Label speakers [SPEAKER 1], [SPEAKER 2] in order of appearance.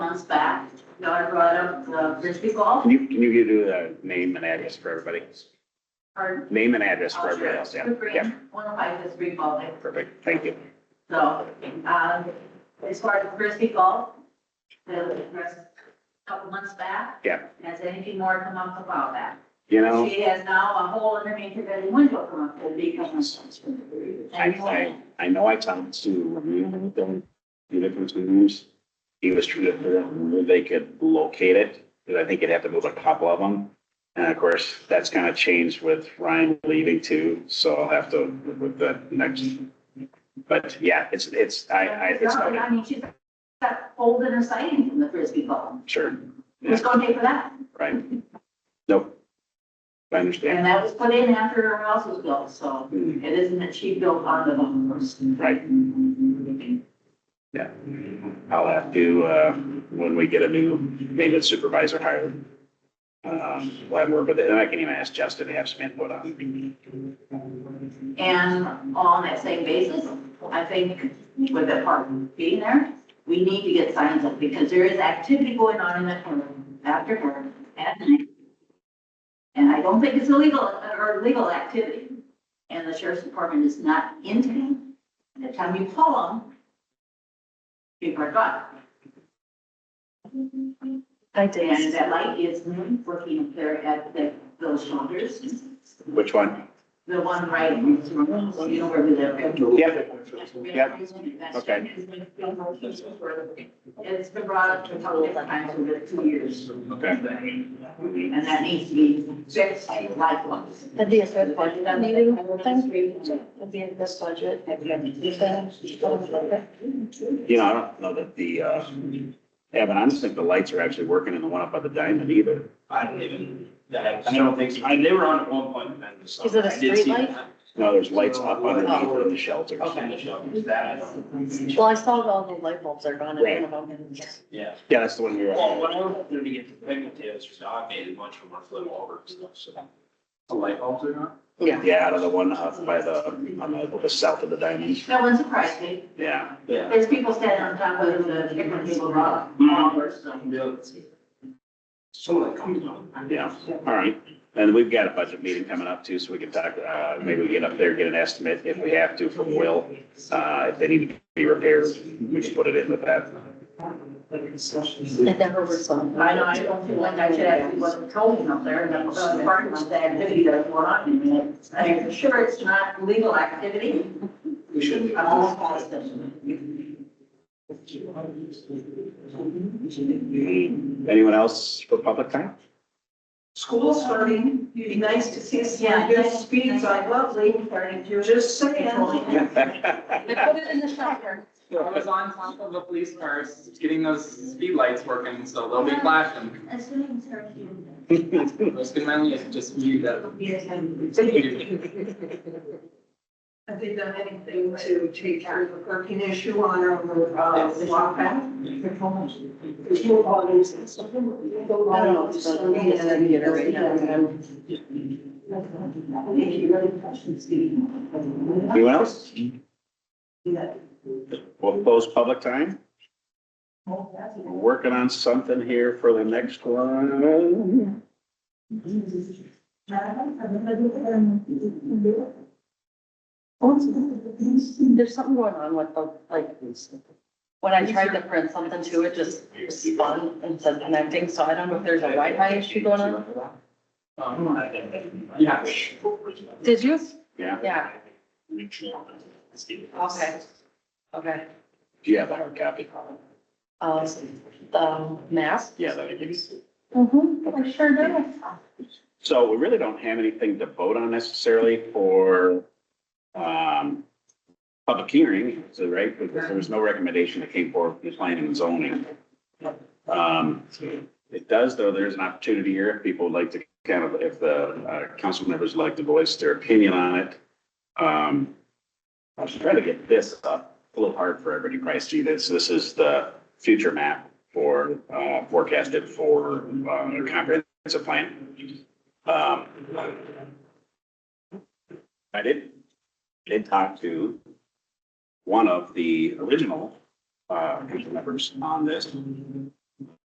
[SPEAKER 1] months back, daughter brought up the frisbee golf,
[SPEAKER 2] Can you, can you do the name and address for everybody?
[SPEAKER 1] or.
[SPEAKER 2] Name and address
[SPEAKER 1] Oh,
[SPEAKER 2] for everybody else, yeah, yeah,
[SPEAKER 1] One of my frisbee golf,
[SPEAKER 2] perfect, thank you.
[SPEAKER 1] so, um, as far as frisbee golf, the rest, couple months back.
[SPEAKER 2] Yeah.
[SPEAKER 1] Has anything more come up about that?
[SPEAKER 2] You know,
[SPEAKER 1] She has now a hole in the main bedroom window come up, it'll be coming.
[SPEAKER 2] I, I, I know I talked to Ramon with them, the different owners. He was trying to figure out where they could locate it, because I think you'd have to move a couple of them. And of course, that's kind of changed with Ryan leaving too, so I'll have to, with the next. But yeah, it's, it's, I, I, it's,
[SPEAKER 1] No,
[SPEAKER 2] noted.
[SPEAKER 1] I mean, she's got holes in her siding from the frisbee golf,
[SPEAKER 2] sure,
[SPEAKER 1] who's gonna pay for that?
[SPEAKER 2] right? Nope. I understand.
[SPEAKER 1] And that was put in after her house was built, so
[SPEAKER 2] Hmm.
[SPEAKER 1] it isn't that she built on the home first.
[SPEAKER 2] Right. I'll have to, uh, when we get a new maintenance supervisor hired. Um, we'll have more, but then I can even ask Justin to have some input on.
[SPEAKER 1] And on that same basis, I think with the park being there, we need to get signs up because there is activity going on in that corner after her at night. And I don't think it's illegal or legal activity. And the sheriff's department is not in town. And the time you call them, people are gone.
[SPEAKER 3] I
[SPEAKER 1] And that light is working up there at the, those shoulders,
[SPEAKER 2] Which one?
[SPEAKER 1] the one right, you know where we live.
[SPEAKER 2] Yep. Okay.
[SPEAKER 1] It's been brought up to a couple of times over the two years,
[SPEAKER 2] Okay.
[SPEAKER 1] and that needs to be fixed likewise.
[SPEAKER 3] That'd be a good budget meeting, that'd be a good budget.
[SPEAKER 2] You know, I don't know that the, uh, Evan, I don't think the lights are actually working in the one up by the diamond either.
[SPEAKER 4] I don't even, I don't think, so. I, they were on at one point, and then. the sun-
[SPEAKER 3] Is it a
[SPEAKER 4] I did see
[SPEAKER 3] streetlight?
[SPEAKER 4] that.
[SPEAKER 2] No, there's lights up underneath in the shelters.
[SPEAKER 4] Okay, so it's that, I don't.
[SPEAKER 3] Well, I saw all the light bulbs are gone in one of them.
[SPEAKER 4] Yeah.
[SPEAKER 2] Yeah, that's the one we were
[SPEAKER 4] Well,
[SPEAKER 2] at.
[SPEAKER 4] when I was up there to get the pigtails, so I made a bunch of them flew over and stuff, so. The light bulbs are not?
[SPEAKER 3] Yeah.
[SPEAKER 2] Yeah, out of the one up by the, on the, the south of the diamond.
[SPEAKER 1] No one surprised me,
[SPEAKER 2] Yeah,
[SPEAKER 4] Yeah.
[SPEAKER 1] there's people standing on top of the different people uh, rock.
[SPEAKER 2] Mm-hmm.
[SPEAKER 4] Some of that comes on.
[SPEAKER 2] yeah. All right. And we've got a budget meeting coming up too, so we can talk, uh, maybe we get up there, get an estimate if we have to from Will. Uh, if they need to be repaired, we just put it in with that.
[SPEAKER 3] It never was on.
[SPEAKER 1] I know, I don't feel like I should actually wasn't trolling up there, and that's the part of the activity that's going on in there. I mean, for sure, it's not legal activity,
[SPEAKER 4] We shouldn't. be-
[SPEAKER 1] I'm almost positive.
[SPEAKER 2] Anyone else for public comment?
[SPEAKER 5] School's starting, it'd be nice to see us,
[SPEAKER 1] Yeah,
[SPEAKER 5] yeah, your
[SPEAKER 1] nice-
[SPEAKER 5] speeds
[SPEAKER 1] nice.
[SPEAKER 5] are lovely, just saying.
[SPEAKER 6] They put it in the shelter.
[SPEAKER 7] I was on top of the police cars, getting those speed lights working, so they'll be flashing.
[SPEAKER 1] As soon as her human.
[SPEAKER 7] I was gonna only just mute that.
[SPEAKER 5] Yes, and have they done anything to take care of the parking issue on our, uh, walk back? There's no bodies. I don't know, it's so neat, and I mean, it's, you know,
[SPEAKER 1] Okay, she really questions me.
[SPEAKER 2] Anyone else?
[SPEAKER 5] Yeah.
[SPEAKER 2] We'll close public time. We're working on something here for the next one.
[SPEAKER 1] Uh-huh.
[SPEAKER 3] There's something going on with the, like, when I tried to print something to it, just spun and said connecting, so I don't know if there's a Wi-Fi issue going on.
[SPEAKER 7] Um, Yeah.
[SPEAKER 3] Did you?
[SPEAKER 2] Yeah.
[SPEAKER 3] Yeah, okay, okay.
[SPEAKER 2] Do you have a hard copy?
[SPEAKER 3] Um, the mask?
[SPEAKER 2] Yeah, that'd be good.
[SPEAKER 3] Mm-hmm, I sure do.
[SPEAKER 2] So we really don't have anything to vote on necessarily for, um, public hearing, so, right? Because there was no recommendation that came forward from planning and zoning. Um, it does, though, there's an opportunity here, if people would like to kind of, if the, uh, council members would like to voice their opinion on it. Um, I was trying to get this up, a little hard for everybody to see this. This is the future map for, uh, forecasted for, uh, comprehensive plan. Um, I did, did talk to one of the original, uh, council members on this.